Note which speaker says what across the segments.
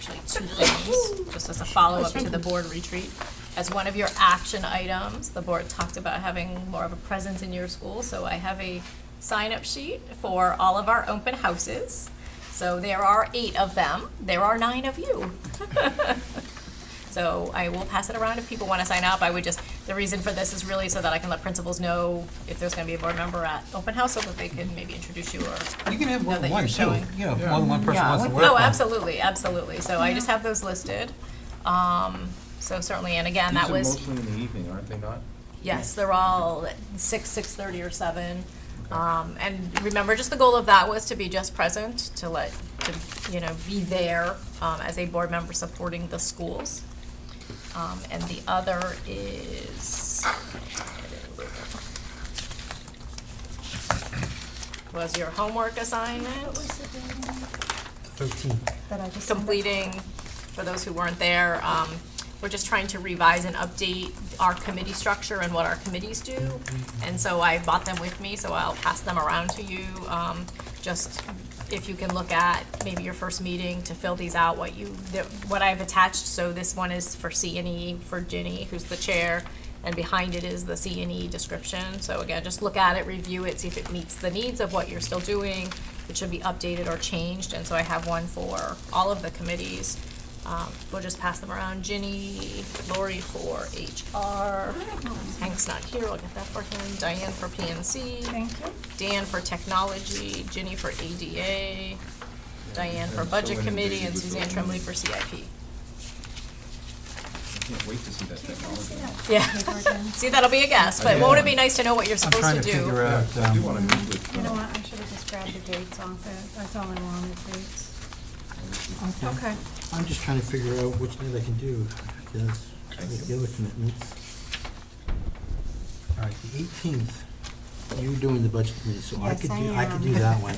Speaker 1: two things, just as a follow-up to the board retreat. As one of your action items, the board talked about having more of a presence in your school, so I have a sign-up sheet for all of our open houses. So there are eight of them, there are nine of you. So I will pass it around if people want to sign up. I would just, the reason for this is really so that I can let principals know if there's going to be a board member at open house so that they can maybe introduce you or.
Speaker 2: You can have
Speaker 1: know
Speaker 2: more than
Speaker 1: that
Speaker 2: one
Speaker 1: you're
Speaker 2: too,
Speaker 1: showing.
Speaker 2: you know, if more than one person
Speaker 3: Yeah,
Speaker 2: wants to
Speaker 3: what-
Speaker 2: work on.
Speaker 1: Oh,
Speaker 2: it.
Speaker 1: absolutely, absolutely. So I just have those listed. Um, so certainly, and again, that was.
Speaker 4: These are mostly in the evening, aren't they not?
Speaker 1: Yes, they're all at six, six thirty or seven. Um, and remember, just the goal of that was to be just present, to let, to, you know, be there, um, as a board member supporting the schools. Um, and the other is was your homework assignment,
Speaker 5: Thirteen.
Speaker 3: That I just signed up
Speaker 1: completing, for those who weren't there, um, we're just trying to revise and update our committee structure and what our committees do. And so I bought them with me, so I'll pass them around to you. Um, just if you can look at maybe your first meeting to fill these out, what you, the- what I've attached. So this one is for C and E, for Ginny, who's the chair, and behind it is the C and E description. So again, just look at it, review it, see if it meets the needs of what you're still doing, if it should be updated or changed. And so I have one for all of the committees. Um, we'll just pass them around. Ginny, Lori for HR. Hank's not here, I'll get that for him. Diane for PNC.
Speaker 3: Thank you.
Speaker 1: Dan for technology, Ginny for ADA, Diane for
Speaker 4: I'm so
Speaker 1: budget committee,
Speaker 4: inundated
Speaker 1: and
Speaker 4: with
Speaker 1: Suzanne
Speaker 4: those
Speaker 1: Tremblay
Speaker 4: emails.
Speaker 1: for CIP.
Speaker 4: I can't wait to see that technology.
Speaker 1: Yeah.
Speaker 3: paper again.
Speaker 1: See, that'll be a guess, but won't it be nice to know what you're
Speaker 2: I'm
Speaker 1: supposed
Speaker 2: trying
Speaker 1: to
Speaker 2: to figure
Speaker 1: do?
Speaker 2: out,
Speaker 4: I do
Speaker 2: um,
Speaker 4: wanna meet with.
Speaker 3: You know
Speaker 4: uh,
Speaker 3: what, I should have just grabbed the dates off it, that's all I wanted, dates.
Speaker 5: Okay. I'm just trying to figure out which thing I can do, because I have the other commitments. All right, the eighteenth, you're doing the budget committee, so I
Speaker 3: Yes,
Speaker 5: could
Speaker 3: I
Speaker 5: do, I could do
Speaker 3: am.
Speaker 5: that one.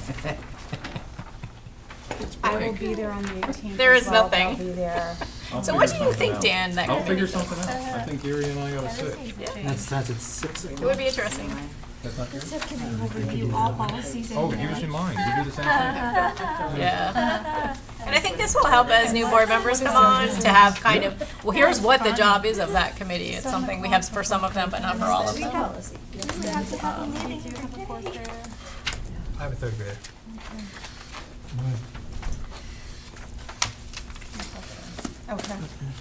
Speaker 3: I will
Speaker 4: break.
Speaker 3: be there on the 18th
Speaker 1: There
Speaker 3: as
Speaker 1: is
Speaker 3: well, but
Speaker 1: nothing.
Speaker 3: I'll be there.
Speaker 4: I'll
Speaker 1: So what do
Speaker 4: figure
Speaker 1: you
Speaker 4: something
Speaker 1: think,
Speaker 4: out.
Speaker 1: Dan, that
Speaker 4: I'll
Speaker 1: could
Speaker 4: figure
Speaker 1: be-
Speaker 4: something out. I think Erie and I ought to sit.
Speaker 1: Yeah,
Speaker 5: That starts at six
Speaker 1: It would
Speaker 5: o'clock.
Speaker 1: be interesting.
Speaker 4: That's not yours?
Speaker 6: Subcommittee will review all policies and.
Speaker 4: Oh, give us your mind. You do the same thing.
Speaker 1: Yeah. And I think this will help as new board members come on to have kind of, well, here's what the job is of that committee. It's something we have for some of them, but not for all of them.
Speaker 6: We have to have a meeting committee.
Speaker 2: I have a third grader.
Speaker 3: Okay.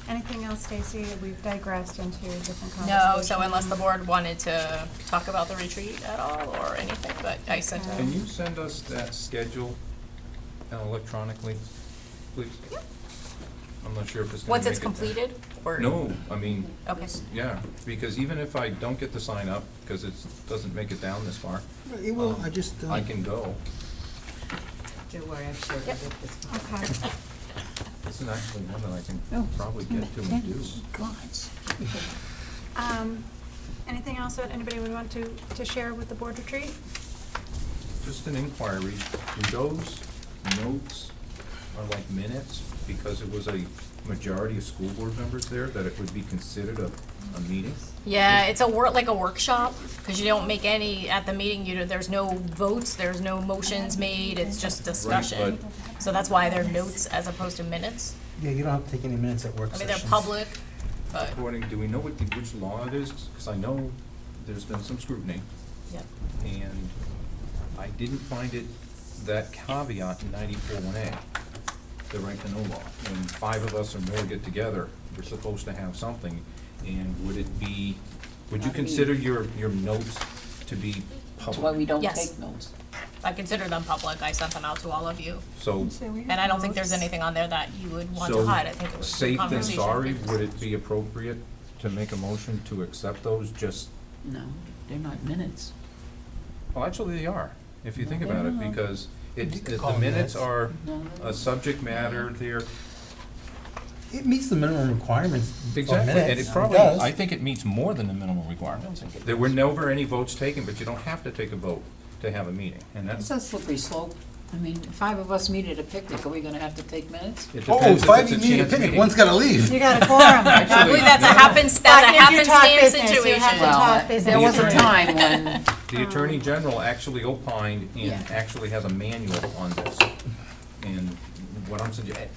Speaker 3: Anything else, Stacy? We've digressed into different conversations.
Speaker 1: No, so unless the board wanted to talk about the retreat at all or anything, but I sent
Speaker 3: Okay.
Speaker 1: out.
Speaker 4: Can you send us that schedule uh, electronically, please? I'm not sure if it's gonna
Speaker 1: Once it's
Speaker 4: make it there.
Speaker 1: completed, or?
Speaker 4: No, I mean,
Speaker 1: Okay.
Speaker 4: yeah, because even if I don't get to sign up, because it doesn't make it down this far, um,
Speaker 5: It will, I just, uh,
Speaker 4: I can go.
Speaker 7: Don't worry, I'm sure we'll get this one.
Speaker 3: Okay.
Speaker 4: This is actually one that I can probably get to and do.
Speaker 3: Um, Anything else that anybody would want to, to share with the board retreat?
Speaker 4: Just an inquiry, do those notes are like minutes? Because it was a majority of school board members there, that it would be considered a, a meeting?
Speaker 1: Yeah, it's a work, like a workshop, because you don't make any, at the meeting, you, don't- there's no votes, there's no motions made, it's just discussion. So that's why they're notes as opposed to minutes.
Speaker 5: yeah, you don't have to take any minutes at work
Speaker 1: I mean,
Speaker 5: sessions.
Speaker 1: they're public, but,
Speaker 4: According, do we know what the, which law it is? Because I know there's been some scrutiny,
Speaker 1: yeah.
Speaker 4: and I didn't find it, that caveat in ninety-four one A, the right to know law. When five of us or more get together, we're supposed to have something, and would it be, would you
Speaker 7: Not me.
Speaker 4: consider your, your notes to be
Speaker 7: That's why we
Speaker 4: public?
Speaker 7: don't
Speaker 1: Yes.
Speaker 7: take notes.
Speaker 1: I consider them public, I sent them out to all of you.
Speaker 4: So,
Speaker 1: And I don't think there's anything on there that you would want to
Speaker 4: so,
Speaker 1: hide, I think it was a
Speaker 4: safe and
Speaker 1: conversation.
Speaker 4: sorry, would it be appropriate to make a motion to accept those just
Speaker 7: No, they're not minutes.
Speaker 4: Well, actually, they are, if you think about it, because
Speaker 5: You
Speaker 4: it,
Speaker 5: could
Speaker 4: it-
Speaker 5: call
Speaker 4: the
Speaker 5: them
Speaker 4: minutes
Speaker 5: minutes.
Speaker 4: are
Speaker 7: No,
Speaker 4: a subject matter there.
Speaker 5: It meets the minimum requirements for minutes.
Speaker 4: Exactly, and it probably,
Speaker 5: does.
Speaker 4: I think it meets more than the minimum requirements. There were never any votes taken, but you don't have to take a vote to have a meeting, and that's,
Speaker 7: it's a slippery slope. I mean, five of us meet at a picnic, are we gonna have to take minutes?
Speaker 4: it
Speaker 5: Oh,
Speaker 4: depends if it's
Speaker 5: five you
Speaker 4: a
Speaker 5: need a
Speaker 4: chance
Speaker 5: picnic,
Speaker 4: meeting.
Speaker 5: one's gotta leave.
Speaker 3: You got a quorum.
Speaker 1: I believe that's a
Speaker 4: Actually,
Speaker 1: happens, that's a
Speaker 3: But if you talk
Speaker 1: happenstance
Speaker 3: business, you
Speaker 1: situation.
Speaker 3: have to
Speaker 7: Well,
Speaker 3: talk
Speaker 7: I-
Speaker 3: business.
Speaker 7: there was a
Speaker 4: Right.
Speaker 7: time when,
Speaker 4: The Attorney General actually opined and
Speaker 1: Yeah.
Speaker 4: actually has a manual on this. And what I'm suggesting,